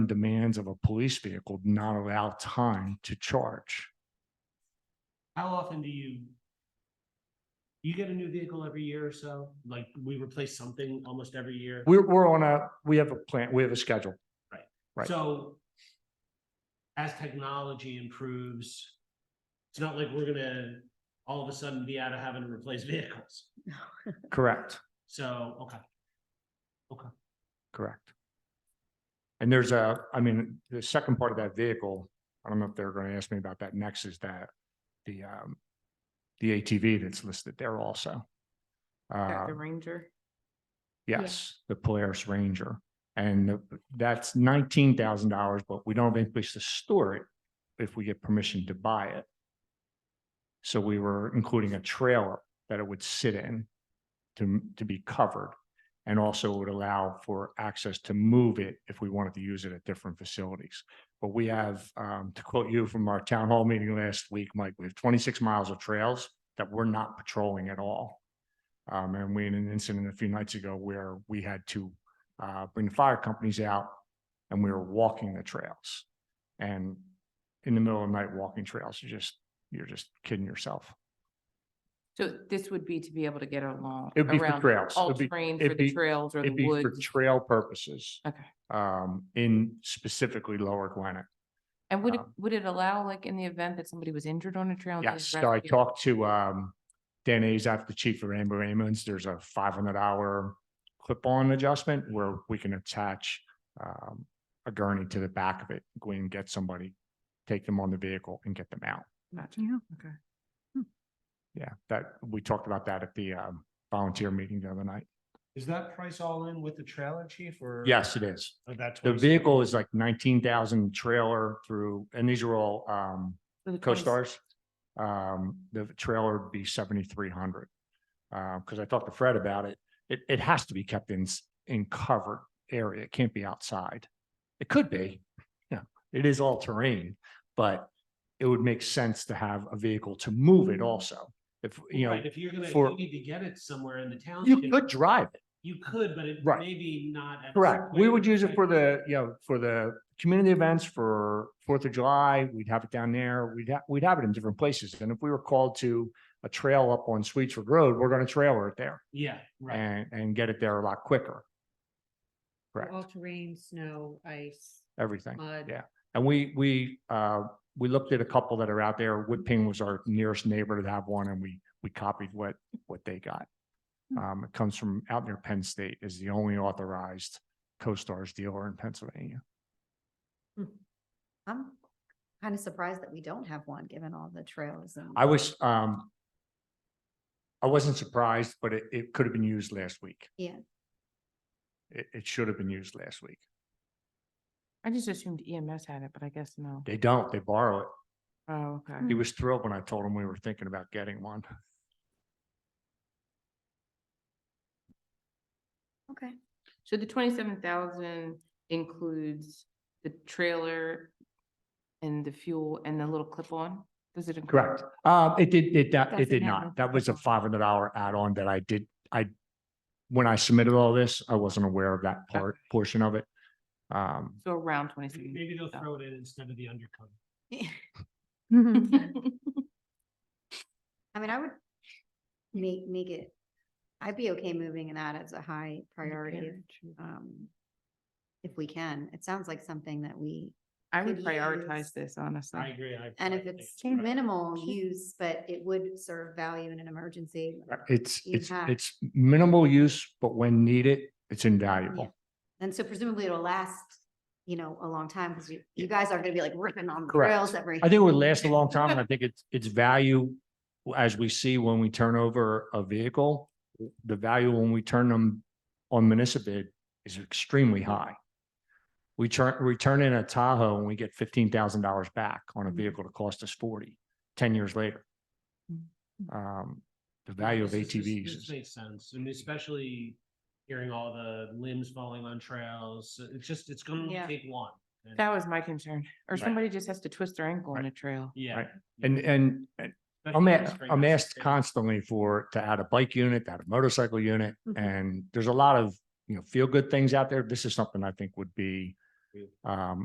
demands of a police vehicle do not allow time to charge. How often do you? You get a new vehicle every year or so, like we replace something almost every year. We're, we're on a, we have a plan, we have a schedule. right. So. As technology improves. It's not like we're gonna all of a sudden be out of having to replace vehicles. Correct, So, okay, correct. And there's a, I mean, the second part of that vehicle, I don't know if they're going to ask me about that next is that the, um, the ATV that's listed there also. Uh, The Ranger. Yeah. Yes, the Polaris Ranger. And the- that's nineteen thousand dollars, but we don't have any place to store it if we get permission to buy it. So we were including a trailer that it would sit in to, to be covered. And also would allow for access to move it if we wanted to use it at different facilities. But we have, um, to quote you from our town hall meeting last week, Mike, we have twenty-six miles of trails that we're not patrolling at all. Um, and we had an incident a few nights ago where we had to uh, bring the fire companies out and we were walking the trails. And in the middle of the night, walking trails, you're just, you're just kidding yourself. So this would be to be able to get along. It'd be for around trails. All It'd be- terrain for it'd the be- trails or the It'd be for woods. trail purposes. Okay. Um, in specifically Lower Gwinnett. And would it, um, would it allow, like, in the event that somebody was injured on a trail? they Yes, just so I rescue? talked to um Dan Azaf, the chief of Amber Ambulance. There's a five hundred hour clip-on adjustment where we can attach um a gurney to the back of it, go in and get somebody, take them on the vehicle and get them out. Gotcha. Okay. Yeah, that, we talked about that at the um volunteer meeting the other night. is that price all in with the trailer chief or? Yes, it is. Or that The 26? vehicle is like nineteen thousand trailer through, and these are all um So the 20 Co-Stars. Um, the trailer would be seventy-three hundred. Uh, because I talked to Fred about it. It, it has to be kept in, s- in covered area. It can't be outside. It could be, you know, it is all terrain, but it would make sense to have a vehicle to move it also. If, you know, Hmm. Right, if you're gonna, if for- you need to get it somewhere in the you township, could drive it. you could, but it Right. maybe not. at Correct. We would Square. use it for the, you know, for the community events for Fourth of July. We'd have it down there. We'd have, we'd have it in different places. And if we were called to a trail up on Sweetsford Road, we're going to trailer it there Yeah, right. and, and get it there a lot quicker. Correct. All terrain, snow, ice, Everything. mud. yeah. And we, we, uh, we looked at a couple that are out there. Whipping was our nearest neighbor to have one and we, we copied what, what they got. Hmm. Um, it comes from out near Penn State is the only authorized Co-Stars dealer in Pennsylvania. I'm kind of surprised that we don't have one, given all the trails and. I was, um, I wasn't surprised, but it, it could have been used last week. Yeah. It, it should have been used last week. I just assumed EMS had it, but I guess no. They don't, they borrow it. Oh, okay. He was thrilled when I told him we were thinking about getting one. Okay. So the twenty-seven thousand includes the trailer and the fuel and the little clip-on? Does it? include- Correct. Uh, it did, it, that, it Doesn't did have not. a- That was a five hundred dollar add-on that I did, I, when I submitted all this, I wasn't aware of that part, portion of it. Um, So around Maybe twenty-seven. maybe they'll throw it in instead of the undercoat. I mean, I would make, make it, I'd be okay moving that as a high priority. um, If we can, it sounds like something that we, I would could prioritize use- this, I honestly. agree. I- and I if think it's right. minimal use, but it would serve value in an emergency. it's, You it's, have- it's minimal use, but when needed, it's invaluable. And so presumably it'll last, you know, a long time because you, you guys aren't going to be like ripping on the Correct. trails every. I think it would last a long time. and I think it's, it's value as we see when we turn over a vehicle. The value when we turn them on municipal bid is extremely high. We turn, we turn in a Tahoe and we get fifteen thousand dollars back on a Mhm. vehicle that cost us forty, ten years later. Mhm. Um, the value of This is- this- ATVs This is, makes sense, and especially hearing all the limbs falling on trails, it's just, it's gonna Yeah. take one. and- That was my concern. Or Right. somebody just has to twist their ankle on a trail. Yeah. Right. and, and, and I'm, a- I'm asked constantly for, to add a bike unit, to add a motorcycle unit. Mhm. And there's a lot of, you know, feel good things out there. This is something I think would be Um,